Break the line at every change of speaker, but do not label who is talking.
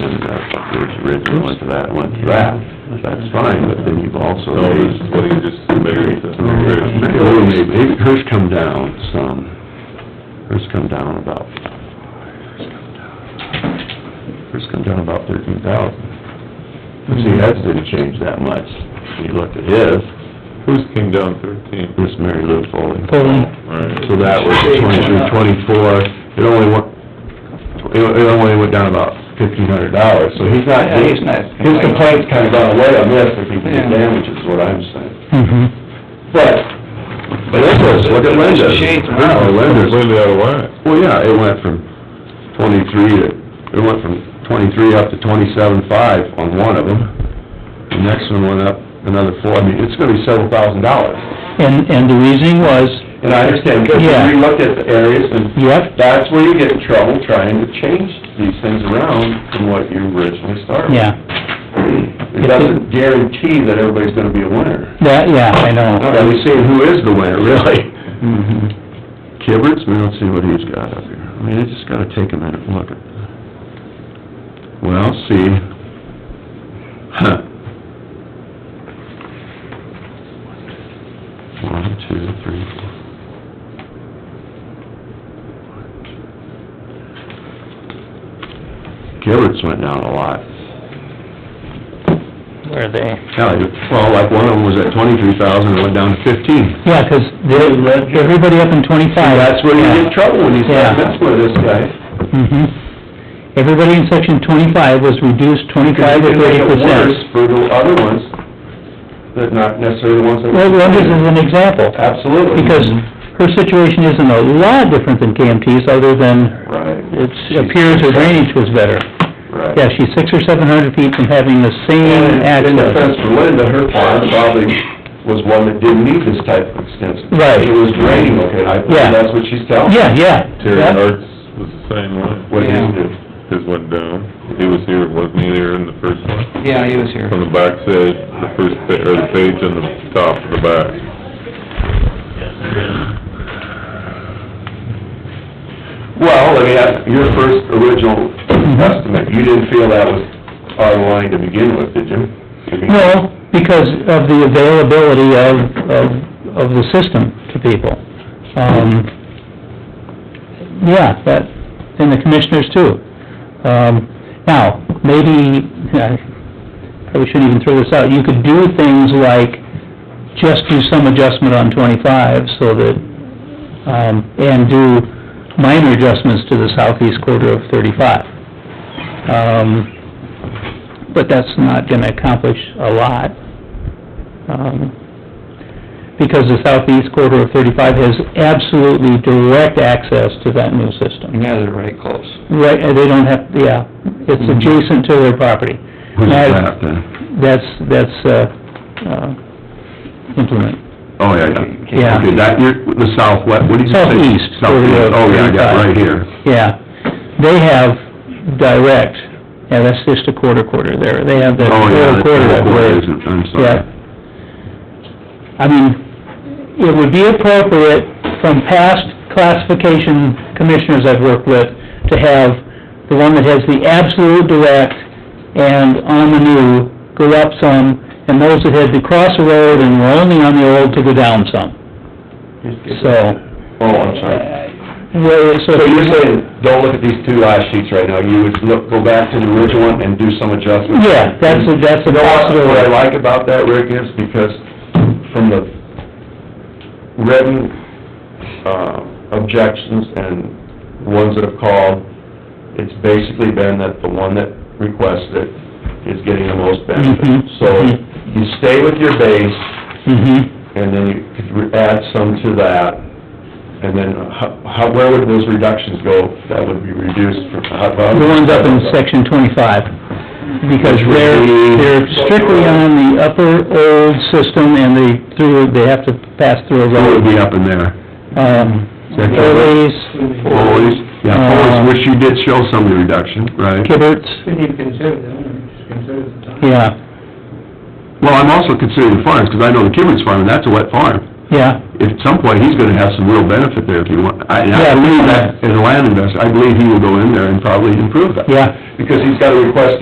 was uh, original into that, went to that, that's fine, but then you've also
No,
raised...
it's what you just figured.
Well, maybe, maybe hers come down some, hers come down about, hers come down about thirteen thousand. See, that didn't change that much, you look at his,
Who's came down thirteen?
this Mary Lou Foley.
Right.
So that was twenty-three, twenty-four, it only went, it it only went down about fifteen hundred dollars, so he's not...
Yeah, he's not
His complaint's kind of gone away on this, if he did
Yeah.
damage, is what I'm saying.
Mm-hmm.
But, but Linda's, look at Linda's.
Shades of-
Oh, Linda's,
Completely out of whack.
well, yeah, it went from twenty-three to, it went from twenty-three up to twenty-seven-five on one of them. The next one went up another four, I mean, it's gonna be several thousand dollars.
And, and the reasoning was,
And I understand, because
Yeah.
we looked at the areas and
yep,
that's where you get in trouble trying to change these things around from what you originally started.
yeah,
It doesn't guarantee that everybody's gonna be a winner.
that, yeah, I know.
Now, we've seen who is the winner, really.
Mhm.
Kibberts, I mean, let's see what he's got up here. I mean, I just gotta take a minute and look at. Well, see. Huh. One, two, three, four. Kibberts went down a lot.
Where are they?
Yeah, well, like one of them was at twenty-three thousand and went down to fifteen.
Yeah, 'cause they, everybody up in twenty-five.
See, that's where you get in trouble when you
Yeah.
start messing with this guy.
hmm Everybody in section twenty-five was reduced twenty-five to
Because you
thirty
can make it worse
percent.
For the other ones, that not necessarily the ones that.
Well, Linda's is an example,
Absolutely.
because
Mm-hmm.
her situation isn't a lot different than KMT's, other than
Right.
it appears her drainage was better.
Right.
Yeah, she's six or seven hundred feet from having the same
And in defense
access.
for Linda, her farm probably was one that didn't need this type of extensive.
Right.
It was draining, okay, I think
Yeah.
that's what she's telling.
Yeah, yeah.
Terry
Yep.
Hart's was the same way.
What his did.
His went down. He was here, wasn't he there in the first one?
Yeah, he was here.
On the back side, the first pa, or the page on the top of the back.
Well, I mean, that's your first original
Mm-hmm.
estimate, you didn't feel that was our line to begin with, did you?
No, because of the availability of, of, of the system to people. Um, yeah, that, and the commissioners too. Um, now, maybe, I probably shouldn't even throw this out, you could do things like just do some adjustment on twenty-five so that, um, and do minor adjustments to the southeast quarter of thirty-five. Um, but that's not gonna accomplish a lot. um, Because the southeast quarter of thirty-five has absolutely direct access to that new system.
Yeah, they're right close.
Right, and they don't have, yeah, it's adjacent to their property.
Who's
Now,
that then?
That's, that's, uh, uh, implement.
Oh, yeah,
Yeah.
Okay, that, you're, the southwest, what did you say?
Southeast, where
Southeast,
the-
oh, yeah, I got it right here.
Yeah, they have direct, yeah, that's just a quarter quarter there, they have that
Oh, yeah,
whole
that's
quarter that
the
way.
quarter, isn't it? I'm sorry.
Yeah. I mean, it would be appropriate from past classification commissioners I've worked with to have the one that has the absolute direct and on the new go up some, and those that had to cross the road and were only on the old to go down some, so.
Oh, I'm sorry.
Uh, well,
So you're saying, don't look at these two last sheets right now, you would look, go back to the original one and do some adjustments?
Yeah, that's a, that's a
You know what, what I
possibility.
like about that, Rick, is because from the written, uh, objections and ones that have called, it's basically been that the one that requested it is getting the most benefit.
Mhm.
So
Mhm.
you stay with your base,
Mm-hmm,
and then you could re- add some to that, and then how, how- where would those reductions go that would be reduced from? how- how-
the ones up in section twenty-five, because
Which would
they're,
be-
they're strictly on the upper old system, and they through, they have to pass through a
What would
road.
be up in there?
Um,
Section-
Foley's,
Foley's, yeah,
Uh,
Foley's, which you did show some of the reduction, right?
Kibberts,
Shouldn't even consider that, just consider the time.
yeah,
Well, I'm also considering the farms, because I know the Kibberts farm, and that's a wet farm.
yeah,
At some point, he's gonna have some real benefit there if you want, I, and I
Yeah.
believe that, as a land investor, I believe he will go in there and probably improve that.
yeah.
Because he's got a request